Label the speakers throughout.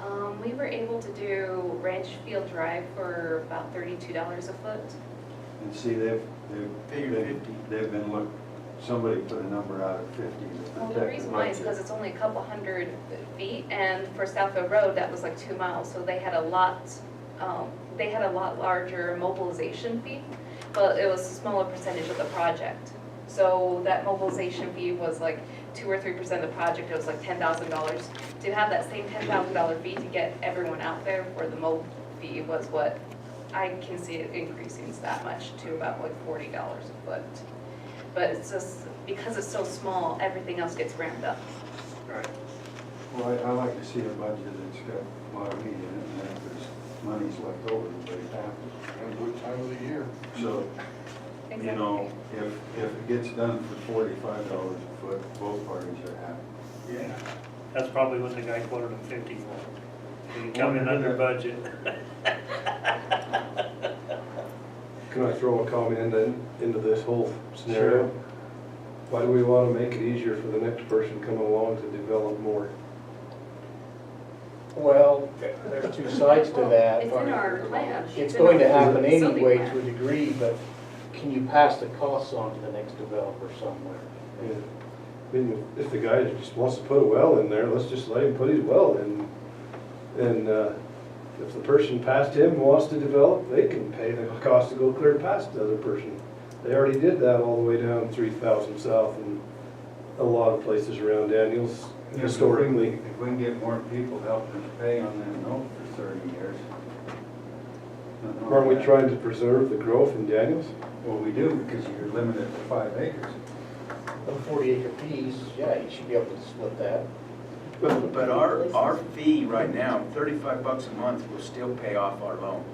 Speaker 1: Um, we were able to do Ranch Field Drive for about thirty-two dollars a foot.
Speaker 2: And see, they've, they've
Speaker 3: Figure
Speaker 2: been,
Speaker 3: 50.
Speaker 2: they've been look, somebody put a number out of fifty to protect the
Speaker 1: Well, the reason why is
Speaker 2: budget.
Speaker 1: because it's only a couple hundred feet, and for Southfield Road, that was like two miles, so they had a lot, um, they had a lot larger mobilization fee, but it was a smaller percentage of the project. So that mobilization fee was like two or three percent of the project, it was like ten thousand dollars. To have that same ten thousand dollar fee to get everyone out there for the mob fee was what, I can see it increasing that much to about like forty dollars a foot. But it's just, because it's so small, everything else gets ramped up.
Speaker 3: Right.
Speaker 2: Well, I, I like to see a budget that's got a lot of meat in it, and if there's money's left over, everybody's happy.
Speaker 3: Depends what time of the year.
Speaker 2: So, you know, if, if it gets done for forty-five dollars a foot, both parties are happy.
Speaker 3: Yeah.
Speaker 4: That's probably what the guy quoted him fifty for. He come in under budget.
Speaker 5: Can I throw a comment in then, into this whole scenario? Why do we want to make it easier for the next person coming along to develop more?
Speaker 6: Well, there's two sides to that.
Speaker 1: It's in our plan.
Speaker 6: It's going to
Speaker 1: in our
Speaker 6: happen
Speaker 1: facility
Speaker 6: anyway
Speaker 1: plan.
Speaker 6: to a degree, but can you pass the costs on to the next developer somewhere?
Speaker 5: Yeah. I mean, if the guy just wants to put a well in there, let's just let him put his well in. And uh, if the person past him wants to develop, they can pay the cost to go clear past the other person. They already did that all the way down three thousand south and a lot of places around Daniels
Speaker 2: If we can-
Speaker 5: historically.
Speaker 2: If we can get more people helping us pay on that note for thirty years. nothing
Speaker 3: Oh,
Speaker 2: wrong
Speaker 5: Aren't
Speaker 2: with that.
Speaker 5: we trying to preserve the growth in Daniels?
Speaker 2: Well, we do, because you're limited to five acres.
Speaker 6: A forty acre piece, yeah, you should be able to split that.
Speaker 3: But our, our fee right now, thirty-five bucks a month, will still pay off our loan.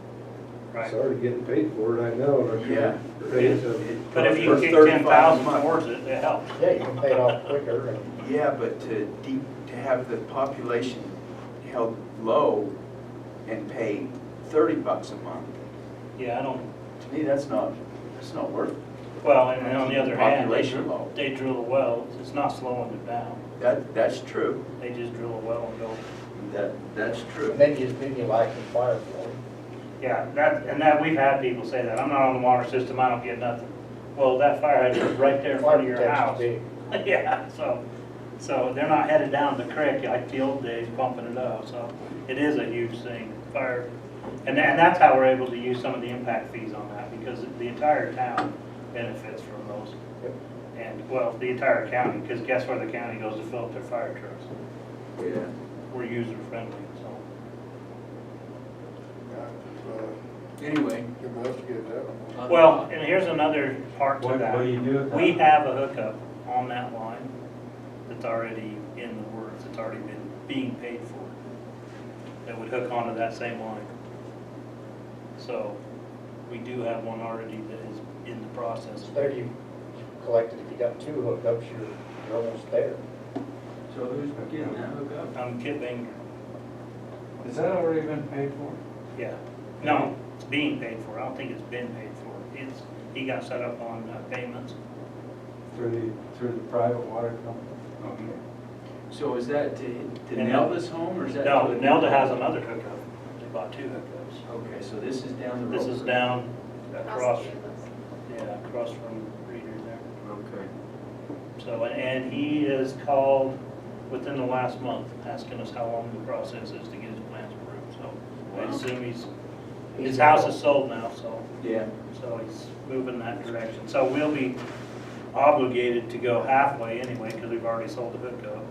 Speaker 4: Right.
Speaker 5: It's already getting paid for it, I know, and I
Speaker 3: Yeah.
Speaker 5: can't pay it to-
Speaker 4: But if you
Speaker 3: For
Speaker 4: kick
Speaker 3: 35
Speaker 4: ten
Speaker 3: a
Speaker 4: thousand
Speaker 3: month.
Speaker 4: towards it, it helps.
Speaker 6: Yeah, you can pay it off quicker and
Speaker 3: Yeah, but to deep, to have the population held low and pay thirty bucks a month,
Speaker 4: Yeah, I don't,
Speaker 3: to me, that's not, that's not worth it.
Speaker 4: well, and and on the other hand, they
Speaker 3: Population
Speaker 4: drill,
Speaker 3: low.
Speaker 4: they drill a well, it's not slowing it down.
Speaker 3: That, that's true.
Speaker 4: They just drill a well and go.
Speaker 3: That, that's true.
Speaker 6: and then you, then you light the fire for it.
Speaker 4: Yeah, that, and that, we've had people say that, I'm not on the water system, I don't get nothing. Well, that fire hydrant is right there in front of your house.
Speaker 6: Architect's
Speaker 4: Yeah, so, so they're not headed down the creek like the old days pumping it up, so it is a huge thing, fire. And tha- and that's how we're able to use some of the impact fees on that, because the entire town benefits from those.
Speaker 6: Yep.
Speaker 4: And, well, the entire county, because guess where the county goes to fill up their fire trucks?
Speaker 3: Yeah.
Speaker 4: We're user friendly, so.
Speaker 3: uh, Anyway,
Speaker 4: Well, and here's another part to
Speaker 2: What,
Speaker 4: that.
Speaker 2: what do you do with that?
Speaker 4: We have a hookup on that line that's already in the works, it's already been being paid for, that would hook onto that same line. So, we do have one already that is in the process.
Speaker 6: So there you you collected, if you got two hookups, you're, you're almost there.
Speaker 3: so who's getting that hookup?
Speaker 4: I'm kidding,
Speaker 2: Has that already been paid for?
Speaker 4: yeah, no, it's being paid for, I don't think it's been paid for, it's, he got set up on uh, payments.
Speaker 2: Through the, through the private water company?
Speaker 3: So is that to, to
Speaker 4: And-
Speaker 3: Nelda's home, or is that?
Speaker 4: No,
Speaker 3: to-
Speaker 4: Nelda has another hookup, they bought two hookups.
Speaker 3: Okay, so this is down the road.
Speaker 4: This is down across,
Speaker 1: Across the campus.
Speaker 4: yeah, across from Reader there.
Speaker 3: Okay.
Speaker 4: So, and- and he has called within the last month, asking us how long the process is to get his plans approved, so I
Speaker 3: Wow.
Speaker 4: assume he's, his house is sold now, so,
Speaker 3: Yeah.
Speaker 4: so he's moving that direction. So we'll be obligated to go halfway anyway, because we've already sold the hookup.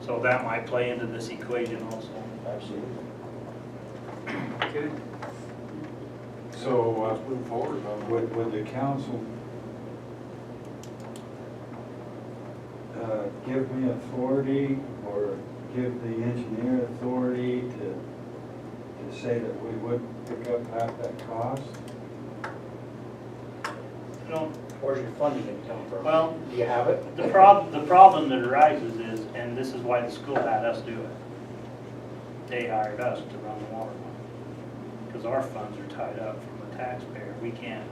Speaker 4: So that might play into this equation also.
Speaker 6: Absolutely.
Speaker 3: Okay.
Speaker 2: So, uh,
Speaker 3: move forward on
Speaker 2: would, would the council uh, give me authority or give the engineer authority to, to say that we would pick up half that cost?
Speaker 4: You know,
Speaker 6: Where's your funding gonna come from?
Speaker 4: Well-
Speaker 6: Do you have it?
Speaker 4: The prob, the problem that arises is, and this is why the school had us do it, they hired us to run the water line. Because our funds are tied up from the taxpayer, we can't,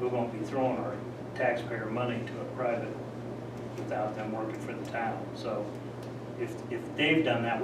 Speaker 4: we won't be throwing our taxpayer money to a private without them working for the town. So if, if they've done that, we